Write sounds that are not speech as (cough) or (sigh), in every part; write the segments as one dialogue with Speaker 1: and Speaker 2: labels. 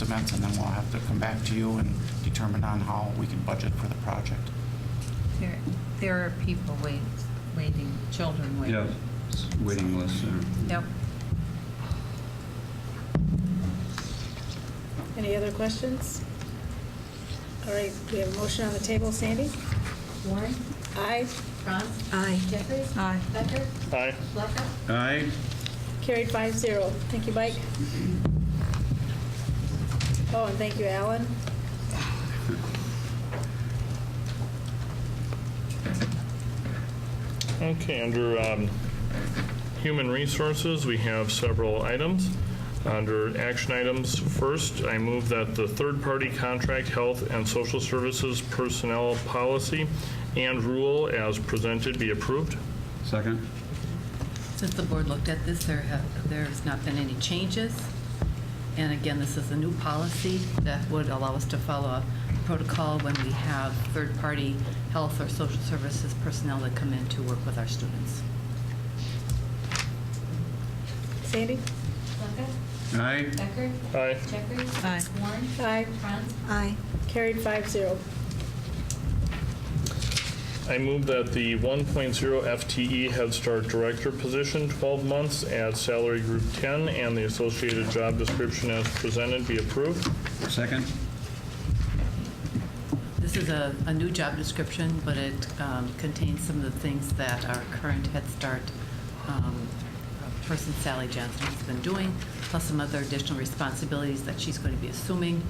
Speaker 1: estimates, and then we'll have to come back to you and determine on how we can budget for the project.
Speaker 2: There, there are people wait, waiting, children waiting.
Speaker 3: Yeah, s- waiting list. yeah.
Speaker 2: Yep.
Speaker 4: Any other questions? All right, we have a motion on the table. Sandy?
Speaker 5: Warren?
Speaker 4: Aye.
Speaker 5: Franz? Aye. Jeffries?
Speaker 2: Aye.
Speaker 5: Becker?
Speaker 6: Aye.
Speaker 5: Blackout?
Speaker 3: Aye,
Speaker 4: Carried five zero. Thank you, Mike. Oh, and thank you, Alan.
Speaker 6: Okay, under um, Human Resources, we have several items. Under action items, first, I move that the third-party contract health and social services personnel policy and rule as presented be approved.
Speaker 3: second.
Speaker 5: Since the board looked at this, there have, there's not been any changes. And again, this is a new policy that would allow us to follow a protocol when we have third-party health or social services personnel that come in to work with our students.
Speaker 4: Sandy?
Speaker 7: Blackout?
Speaker 3: Aye,
Speaker 7: Becker?
Speaker 6: Aye.
Speaker 7: Jeffries?
Speaker 2: Aye.
Speaker 7: Warren?
Speaker 4: Aye.
Speaker 7: Franz?
Speaker 2: Aye.
Speaker 4: Carried five zero.
Speaker 6: I move that the 1.0 FTE E Head Start Director position, 12 months, at salary group 10, and the associated job description as presented be approved.
Speaker 3: second.
Speaker 5: This is a, a new job description, but it um, contains some of the things that our current Head Start um, person Sally Johnson has been doing, plus some other additional responsibilities that she's going to be assuming,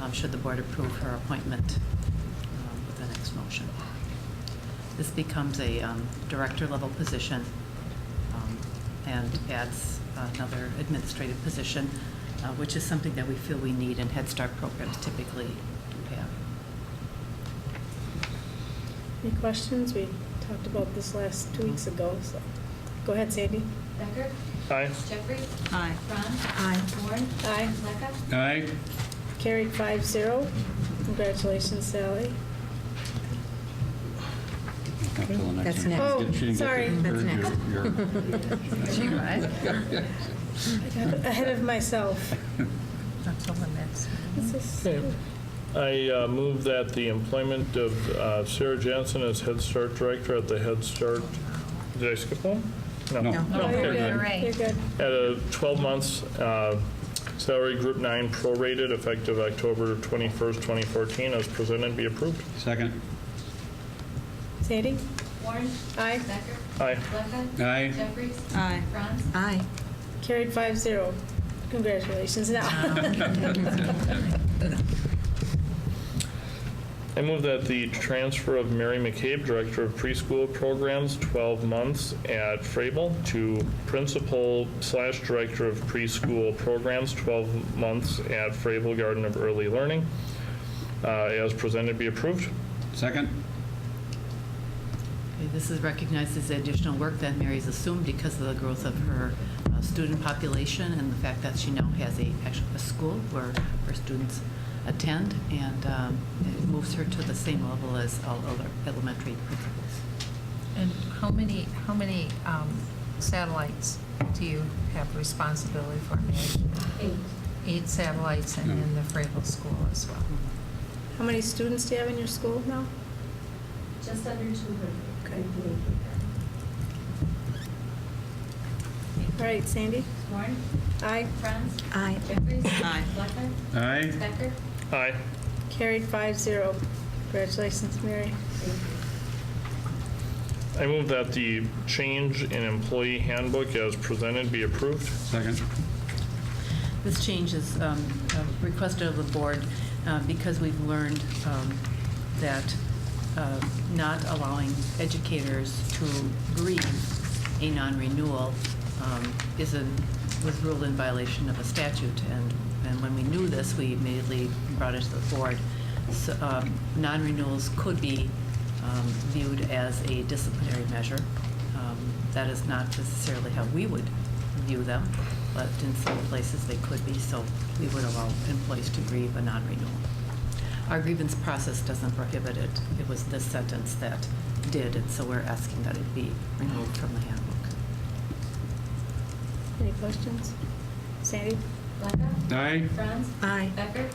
Speaker 5: um, should the board approve her appointment um, with the next motion. This becomes a um, director-level position um, and adds another administrative position, uh, which is something that we feel we need and Head Start programs typically do have.
Speaker 4: Any questions? We talked about this last two weeks ago, so. Go ahead, Sandy.
Speaker 7: Becker?
Speaker 6: Aye.
Speaker 7: Jeffries?
Speaker 2: Aye.
Speaker 7: Franz?
Speaker 2: Aye.
Speaker 7: Warren?
Speaker 4: Aye.
Speaker 7: Blackout?
Speaker 3: Aye,
Speaker 4: Carried five zero. Congratulations, Sally.
Speaker 3: Up till the
Speaker 8: That's
Speaker 3: one.
Speaker 4: next. Oh,
Speaker 3: She didn't get
Speaker 4: sorry.
Speaker 3: the-
Speaker 8: That's next.
Speaker 3: your- your-
Speaker 5: She was.
Speaker 4: I got (laughs) ahead
Speaker 3: (laughs)
Speaker 4: of myself.
Speaker 2: That's all the next.
Speaker 4: This is-
Speaker 6: Okay. I uh, move that the employment of uh, Sarah Johnson as Head Start Director at the Head Start, did I skip one?
Speaker 3: No. No.
Speaker 4: Oh, you're
Speaker 6: okay,
Speaker 4: good.
Speaker 2: Hooray.
Speaker 4: You're good.
Speaker 6: good. At a 12 months uh, salary group nine prorated effective October 21st, 2014, as presented, be approved.
Speaker 3: Second.
Speaker 4: Sandy?
Speaker 7: Warren?
Speaker 4: Aye.
Speaker 7: Becker?
Speaker 6: Aye.
Speaker 7: Blackout?
Speaker 3: Aye.
Speaker 7: Jeffries?
Speaker 2: Aye.
Speaker 7: Franz?
Speaker 8: Aye.
Speaker 4: Carried five zero. Congratulations now.
Speaker 6: I move that the transfer of Mary McCabe, Director of Preschool Programs, 12 months at Frabel, to Principal slash Director of Preschool Programs, 12 months at Frabel Garden of Early Learning, uh, as presented, be approved.
Speaker 3: Second.
Speaker 5: Okay, This is recognized as the additional work that Mary's assumed because of the growth of her uh, student population and the fact that she now has a, actually a school where her students attend, and um, it moves her to the same level as all other elementary principals.
Speaker 2: And how many, how many um, satellites do you have responsibility for, Mary?
Speaker 7: Eight.
Speaker 2: Eight satellites and then the Frabel School as well.
Speaker 4: (laughs) How many students do you have in your school now?
Speaker 7: Just under two hundred.
Speaker 4: All right, Sandy?
Speaker 7: Warren?
Speaker 4: Aye.
Speaker 7: Franz?
Speaker 8: Aye.
Speaker 7: Jeffries?
Speaker 8: Aye.
Speaker 7: Blackout?
Speaker 3: Aye,
Speaker 7: Becker?
Speaker 6: Aye.
Speaker 4: Carried five zero. Congratulations, Mary.
Speaker 6: I move that the change in employee handbook as presented be approved.
Speaker 3: second.
Speaker 5: This change is um, uh, requested of the board uh, because we've learned um, that uh, not allowing educators to grieve a non-renewal um, is a, was ruled in violation of a statute. And, and when we knew this, we immediately brought it to the board. So, um, Non-renewals could be um, viewed as a disciplinary measure. Um, That is not necessarily how we would view them, but in some places they could be, so we would allow employees to grieve a non-renewal. Our grievance process doesn't prohibit it. It was this sentence that did, and so we're asking that it be removed from the handbook.
Speaker 4: Any questions? Sandy?
Speaker 3: Lecca?
Speaker 9: Aye.
Speaker 3: Franz?
Speaker 7: Aye.
Speaker 3: Becker?